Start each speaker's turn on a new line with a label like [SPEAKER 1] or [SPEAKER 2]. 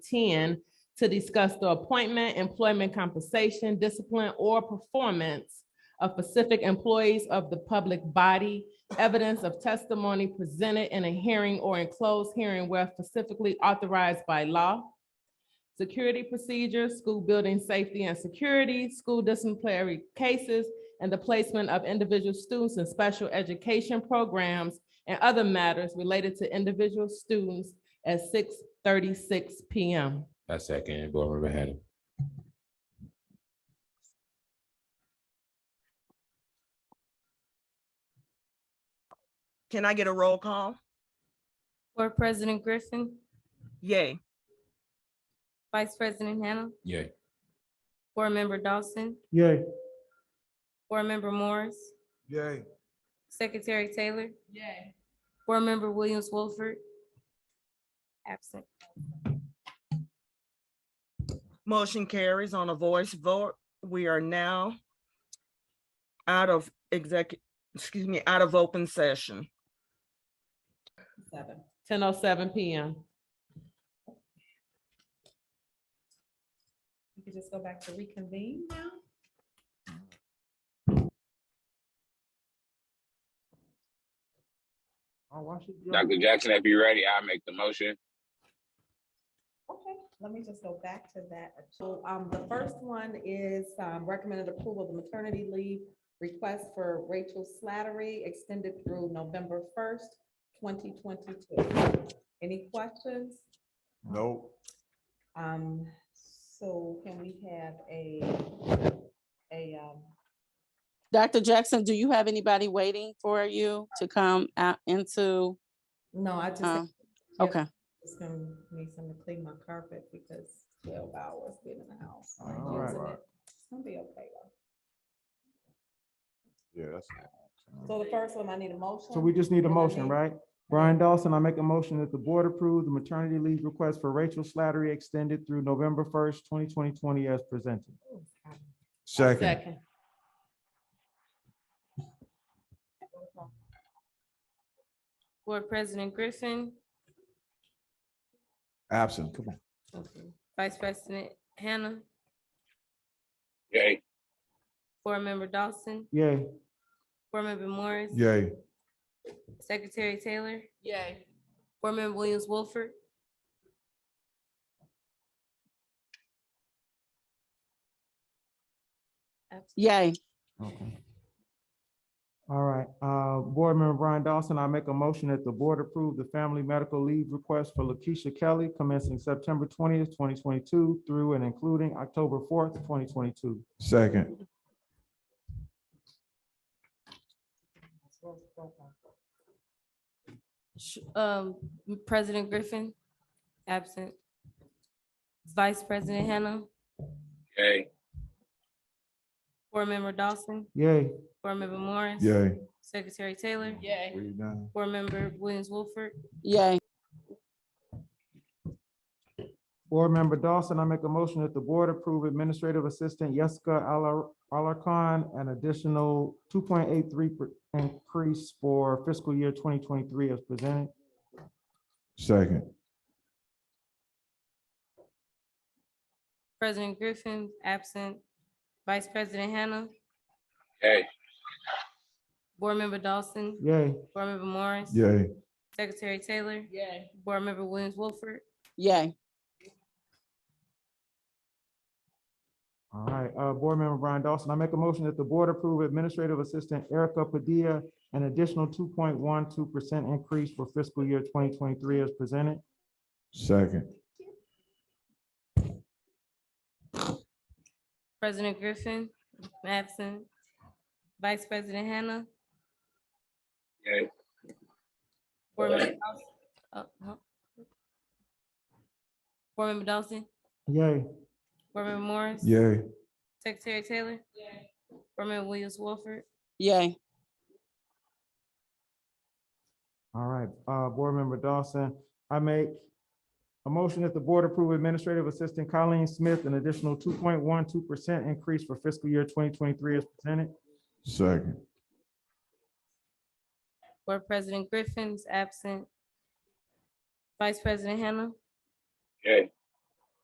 [SPEAKER 1] ten to discuss the appointment, employment compensation, discipline, or performance of specific employees of the public body, evidence of testimony presented in a hearing or in closed hearing where specifically authorized by law, security procedures, school building safety and security, school disciplinary cases, and the placement of individual students in special education programs and other matters related to individual students at six thirty-six PM.
[SPEAKER 2] I second Board Member Hannah.
[SPEAKER 3] Can I get a roll call?
[SPEAKER 4] Board President Griffin,
[SPEAKER 3] Yay.
[SPEAKER 4] Vice President Hannah,
[SPEAKER 2] Yay.
[SPEAKER 4] Board Member Dawson,
[SPEAKER 5] Yay.
[SPEAKER 4] Board Member Morris,
[SPEAKER 5] Yay.
[SPEAKER 4] Secretary Taylor,
[SPEAKER 1] Yay.
[SPEAKER 4] Board Member Williams Wolford. Absent.
[SPEAKER 3] Motion carries on a voice vote. We are now out of exec, excuse me, out of open session.
[SPEAKER 1] Ten oh seven PM.
[SPEAKER 6] We could just go back to reconvene now?
[SPEAKER 7] Dr. Jackson, if you're ready, I'll make the motion.
[SPEAKER 6] Okay, let me just go back to that. So, um, the first one is, um, recommended approval of the maternity leave request for Rachel Slattery extended through November first, twenty twenty-two. Any questions?
[SPEAKER 5] No.
[SPEAKER 6] Um, so can we have a, a, um,
[SPEAKER 8] Dr. Jackson, do you have anybody waiting for you to come out into,
[SPEAKER 6] no, I just.
[SPEAKER 8] Um,
[SPEAKER 6] Yep,
[SPEAKER 8] okay,
[SPEAKER 6] Just gonna need some to clean my carpet because twelve hours being in the house. like,
[SPEAKER 5] All right.
[SPEAKER 6] using it. It's gonna be okay though.
[SPEAKER 5] Yeah, that's.
[SPEAKER 6] So the first one, I need a motion.
[SPEAKER 5] So we just need a
[SPEAKER 6] and I
[SPEAKER 5] motion,
[SPEAKER 6] need-
[SPEAKER 5] right? Brian Dawson, I make a motion that the board approve the maternity leave request for Rachel Slattery extended through November first, twenty twenty twenty as presented.
[SPEAKER 1] Second.
[SPEAKER 4] Board President Griffin,
[SPEAKER 5] Absent, come on.
[SPEAKER 4] Vice President Hannah,
[SPEAKER 7] Yay.
[SPEAKER 4] Board Member Dawson,
[SPEAKER 5] Yay.
[SPEAKER 4] Board Member Morris,
[SPEAKER 5] Yay.
[SPEAKER 4] Secretary Taylor,
[SPEAKER 1] Yay.
[SPEAKER 4] Board Member Williams Wolford. Absent.
[SPEAKER 8] yay.
[SPEAKER 5] Okay. All right, uh, Board Member Brian Dawson, I make a motion that the board approve the family medical leave request for Lakeisha Kelly commencing September twentieth, twenty twenty-two through and including October fourth, twenty twenty-two. Second.
[SPEAKER 4] Sh- Um, President Griffin, absent. Vice President Hannah,
[SPEAKER 7] Yay.
[SPEAKER 4] Board Member Dawson,
[SPEAKER 5] Yay.
[SPEAKER 4] Board Member Morris. Secretary Taylor,
[SPEAKER 1] Yay.
[SPEAKER 4] Board Member Williams Wolford,
[SPEAKER 8] Yay.
[SPEAKER 5] Board Member Dawson, I make a motion that the board approve Administrative Assistant Jessica Alar- Alarcon an additional two point eight three increase for fiscal year twenty twenty-three as presented. Second.
[SPEAKER 4] President Griffin, absent. Vice President Hannah,
[SPEAKER 7] Yay.
[SPEAKER 4] Board Member Dawson,
[SPEAKER 5] Yay.
[SPEAKER 4] Board Member Morris.
[SPEAKER 5] Yay.
[SPEAKER 4] Secretary Taylor,
[SPEAKER 1] Yay.
[SPEAKER 4] Board Member Williams Wolford,
[SPEAKER 8] Yay.
[SPEAKER 5] All right, uh, Board Member Brian Dawson, I make a motion that the board approve Administrative Assistant Erica Padilla an additional two point one two percent increase for fiscal year twenty twenty-three as presented. Second.
[SPEAKER 4] President Griffin, absent. Vice President Hannah,
[SPEAKER 7] Yay.
[SPEAKER 4] Board Member Dawson. uh, huh. Board Member Dawson,
[SPEAKER 5] Yay.
[SPEAKER 4] Board Member Morris.
[SPEAKER 5] Yay.
[SPEAKER 4] Secretary Taylor. Board Member Williams Wolford,
[SPEAKER 8] Yay.
[SPEAKER 5] All right, uh, Board Member Dawson, I make a motion that the board approve Administrative Assistant Colleen Smith an additional two point one two percent increase for fiscal year twenty twenty-three as presented. Second.
[SPEAKER 4] Board President Griffin's absent. Vice President Hannah,
[SPEAKER 7] Yay.